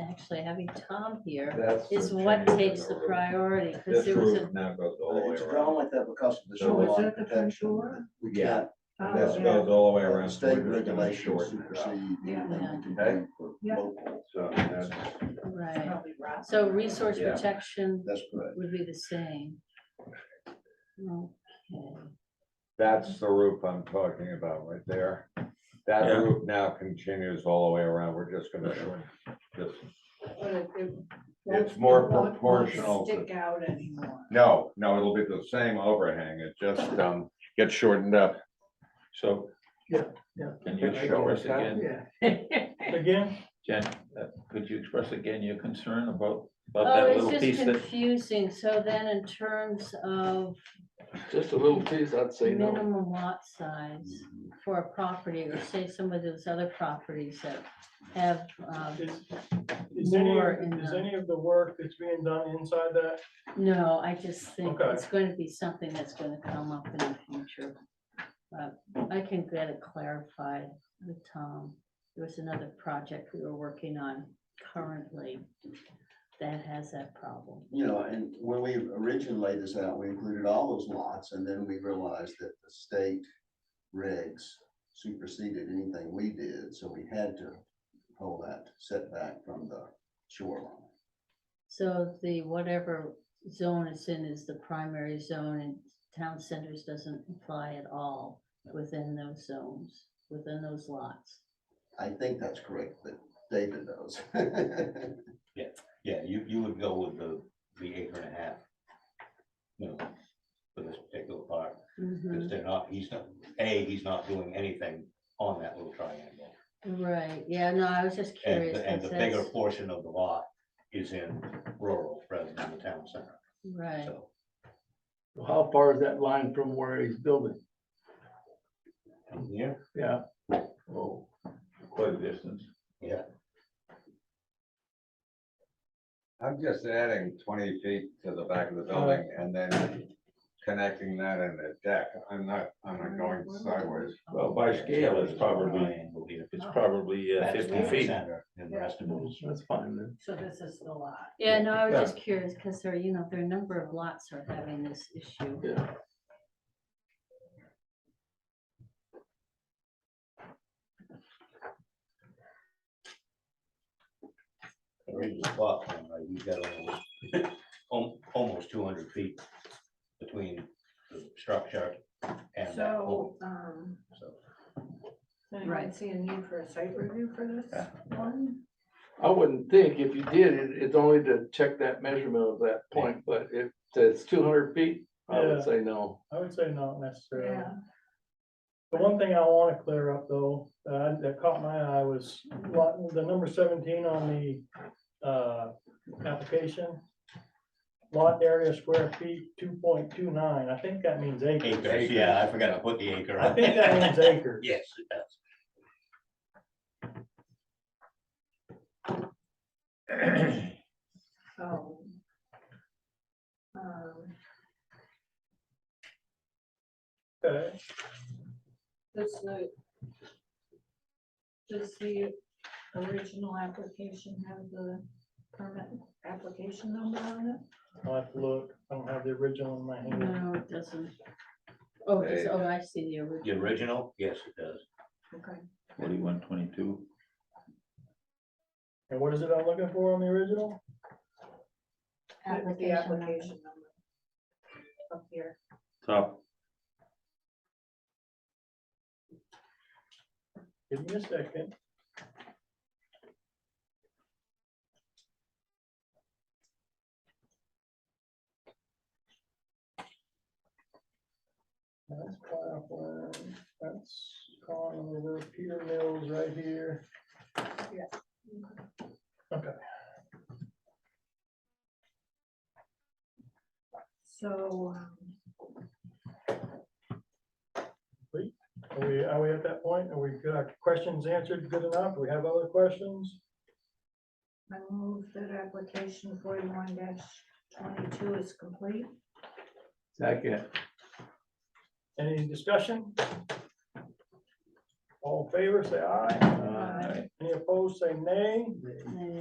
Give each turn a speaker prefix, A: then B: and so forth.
A: actually, having Tom here
B: That's
A: is
B: for
A: what
B: changing
A: takes the
B: road.
A: priority, because
B: This
A: there was a,
B: route now goes all the way
C: It's drawn
B: around.
C: like that because of the
B: So is
C: shoreline
D: that the
C: protection.
D: contour?
C: We
B: Yeah.
C: can't,
D: Oh,
B: This
D: yeah.
B: goes all the way
C: the
B: around.
C: state
B: We're gonna
C: regulations
B: shorten it up.
C: supersede
D: Yeah.
C: anything we
B: Okay.
C: can do for
D: Yeah.
C: local.
B: So that's,
A: right,
D: Probably right.
A: so resource
B: Yeah.
A: protection
C: That's correct.
A: would be the same. Okay.
E: That's the roof I'm talking about right there. That
B: Yeah.
E: roof now continues all the way around. We're just gonna shrink this.
D: But it- it
E: It's
D: won't-
E: more
D: it won't
E: proportional to-
D: Stick out anymore.
E: No, no, it'll be the same overhang. It just, um, gets shortened up.
B: so.
F: Yeah, yeah.
B: Can you show us again,
F: Yeah. Again,
B: Jen, uh, could you express again your concern about, about
A: Oh,
B: that little
A: it's
B: piece
A: just
B: that,
A: confusing, so then in terms of
G: Just a little piece, I'd say no.
A: minimum lot size
B: Mm-hmm.
A: for a property, or say some of those other properties that have, um,
F: is, is any,
A: More in
F: of- is
A: the-
F: any of the work that's being done inside that?
A: no, I just think
F: Okay.
A: it's going to be something that's going to come up in the future. But I can get it clarified with Tom. There was another project we were working on currently that has that problem.
C: You know, and when we originally laid this out, we included all those lots and then we realized that the state regs superseded anything we did, so we had to pull that setback from the shoreline.
A: So the whatever zone it's in is the primary zone and town centers doesn't apply at all within those zones, within those lots.
C: I think that's correct, but David knows.
H: Yeah, you, you would go with the, the acre and a half. You know, for this particular part, because they're not, he's not, A, he's not doing anything on that little triangle.
A: Right, yeah, no, I was just
H: And,
A: curious.
H: the- and the
A: 'cause
H: bigger
A: that's-
H: portion of the lot is in rural rather than the town center,
A: Right,
H: so.
G: How far is that line from where he's building?
H: From here,
G: Yeah,
B: oh, quite a distance.
H: yeah,
E: I'm just adding twenty feet to the back of the building and then connecting that in the deck. I'm not, I'm not going sideways.
B: Well, by scale, it's probably,
H: triangle here.
B: it's probably uh,
H: That's
B: fifty
H: town
B: feet.
H: center, And the rest of it is
G: that's fine then.
D: So this is the lot.
A: yeah, no, I was
E: Yeah.
A: just curious, because there, you know, there are a number of lots are having this issue.
G: Yeah.
H: already the plot line, right, you've got almost, al- almost two hundred feet between the structure and that
D: So,
H: pole,
D: um,
H: so.
D: does anyone
A: Right.
D: see a need for a site review for this one?
G: I wouldn't think if you did, it, it's only to check that measurement of that point, but if it's two hundred feet, I
F: Yeah.
G: would say no.
F: I would say not necessarily.
D: Yeah,
F: The one thing I want to clear up though, uh, that caught my eye was lot, the number seventeen on the, uh, application. Lot area square feet, two point two nine. I think that means acres.
H: Acres, yeah, I forgot to put the acre
F: I
H: on.
F: think that means acres.
H: Yes, it does.
D: so. Um,
F: Okay.
D: Does the, does the original application have the permit application number on it?
F: I'll have to look. I don't have the original in my hand.
A: No, it doesn't. Oh, it's,
E: Hey.
A: oh, I see the
H: The
A: original.
H: original, yes, it does.
D: Okay.
B: Forty-one twenty-two.
F: And what is it I'm looking for on the original?
D: With
A: application
D: the
A: number.
D: application number. Up here.
B: Top,
F: Give me a second. That's Claflin, that's calling over Peter Mills right here.
D: So, um,
F: Are we, are we at that point? Are we, got our questions answered good enough? Do we have other questions?
D: I move that application forty-one twenty-two is complete.
G: Second.
F: Any discussion? All in favor, say aye.
A: Aye.
G: uh,
F: Any opposed, say nay.
A: There you